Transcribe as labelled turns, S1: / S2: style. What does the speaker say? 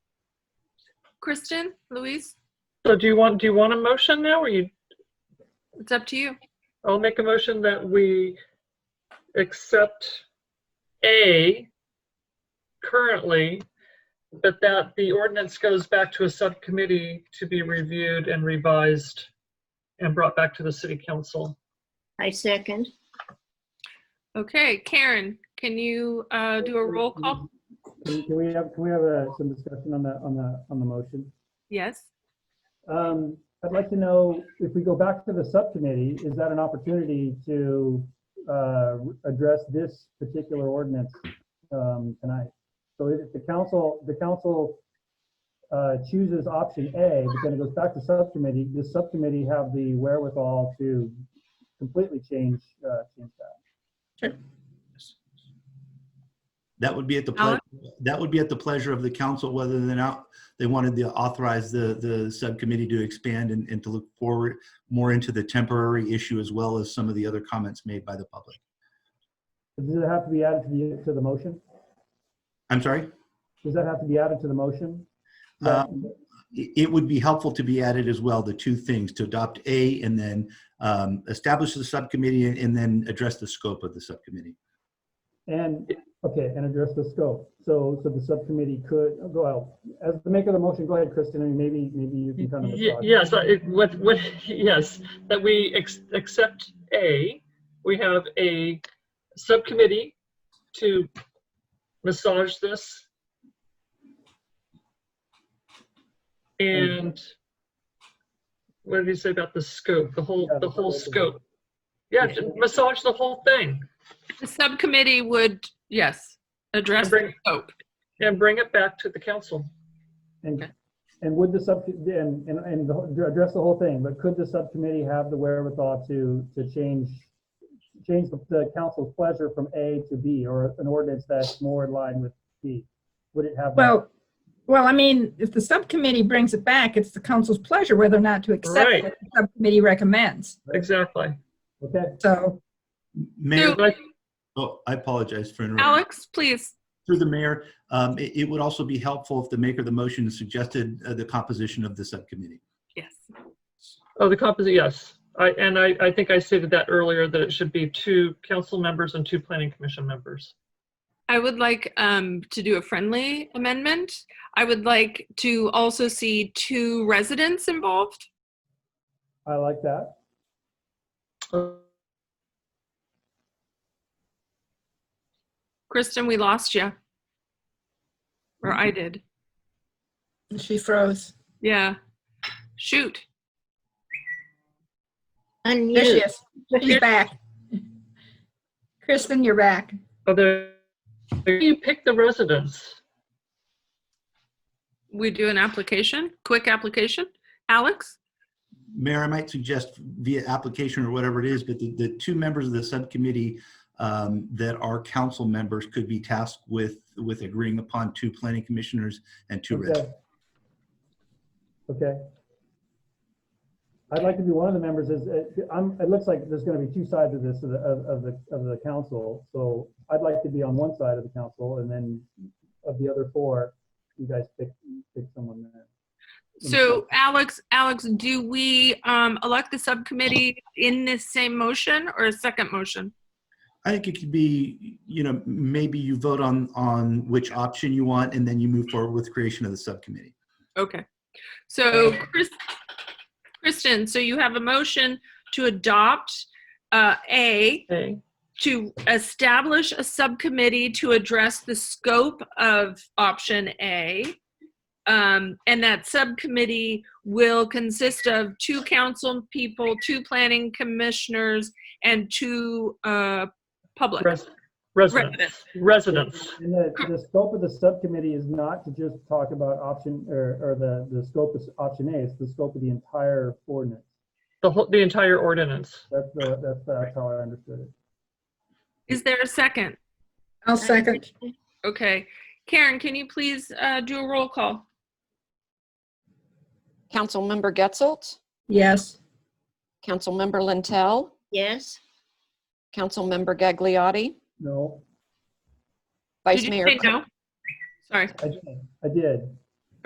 S1: Kristen, Louise,
S2: So do you want, do you want a motion now, or you,
S1: it's up to you.
S2: I'll make a motion that we accept A currently, but that the ordinance goes back to a subcommittee to be reviewed and revised and brought back to the city council.
S3: I second.
S1: Okay, Karen, can you uh, do a roll call?
S4: Can can we have, can we have uh, some discussion on the, on the, on the motion?
S1: Yes.
S4: Um, I'd like to know, if we go back to the subcommittee, is that an opportunity to uh, address this particular ordinance um, tonight? So if the council, the council uh, chooses option A, but then it goes back to subcommittee, does subcommittee have the wherewithal to completely change, uh, change that?
S5: That would be at the, ple-
S1: Alex?
S5: that would be at the pleasure of the council, whether or not they wanted to authorize the, the subcommittee to expand and, and to look forward more into the temporary issue as well as some of the other comments made by the public.
S4: Does it have to be added to the, to the motion?
S5: I'm sorry?
S4: Does that have to be added to the motion?
S5: Uh, It it would be helpful to be added as well, the two things, to adopt A and then um, establish the subcommittee and- and then address the scope of the subcommittee.
S4: And, okay, and address the scope. So, so the subcommittee could, go out, as the maker of the motion, go ahead, Kristen, and maybe, maybe you can kind of.
S2: Ye-
S4: massage it.
S2: Yes, I- it- what, what, yes, that we ex- accept A, we have a subcommittee to massage this. And what did you say about the scope, the whole,
S4: Yeah,
S2: the
S4: the
S2: whole
S4: scope.
S2: scope? Yeah, to massage the whole thing
S1: The subcommittee would, yes,
S2: and
S1: address the
S2: bring,
S1: scope.
S2: and bring it back to the council.
S4: And,
S1: Okay.
S4: and would the sub, and, and, and the whole- address the whole thing, but could the subcommittee have the wherewithal to, to change, change the- the council's pleasure from A to B, or an ordinance that's more in line with B? Would it have? that?
S6: Well, well, I mean, if the subcommittee brings it back, it's the council's pleasure whether or not to accept
S2: Right.
S6: what the subcommittee recommends.
S2: Exactly.
S4: Okay,
S6: So,
S5: Mayor,
S1: So,
S2: Like,
S5: oh, I apologize for interrupting.
S1: Alex, please.
S5: Through the mayor, um, it it would also be helpful if the maker of the motion suggested uh, the composition of the subcommittee.
S1: Yes.
S2: Oh, the composite, yes. I, and I, I think I stated that earlier, that it should be two council members and two planning commission members.
S1: I would like um, to do a friendly amendment. I would like to also see two residents involved.
S4: I like that.
S2: Oh,
S1: Kristen, we lost you. Or I did.
S6: she froze.
S1: Yeah. Shoot.
S6: There she
S3: Unmute.
S6: is. She's back. Kristen, you're back.
S2: Are there, where do you pick the residents?
S1: We do an application, quick application. Alex?
S5: Mayor, I might suggest via application or whatever it is, but the, the two members of the subcommittee um, that are council members could be tasked with, with agreeing upon two planning commissioners and two residents.
S4: Okay. Okay. I'd like to be one of the members is, uh, I'm, it looks like there's gonna be two sides of this, of the, of of the, of the council. So I'd like to be on one side of the council and then of the other four, you guys pick, pick someone there.
S1: So Alex, Alex, do we um, elect the subcommittee in this same motion or a second motion?
S5: I think it could be, you know, maybe you vote on, on which option you want, and then you move forward with creation of the subcommittee.
S1: Okay. So Chris, Kristen, so you have a motion to adopt uh, A,
S2: Okay,
S1: to establish a subcommittee to address the scope of option A. Um, and that subcommittee will consist of two council people, two planning commissioners, and two uh, public.
S2: res- residents,
S1: residents.
S2: residents.
S4: And the, the scope of the subcommittee is not to just talk about option, or, or the, the scope is option A, it's the scope of the entire ordinance.
S2: The whole, the entire ordinance.
S4: That's the, that's, that's how I understood it.
S1: Is there a second?
S6: I'll second.
S1: Okay. Karen, can you please uh, do a roll call?
S7: Councilmember Getzelt,
S6: Yes.
S7: Councilmember Lintel,
S3: Yes,
S7: Councilmember Gagliotti,
S4: No,
S7: Vice
S1: Did you
S7: Mayor.
S1: say
S7: Cl-
S1: no? Sorry.
S4: I, I did.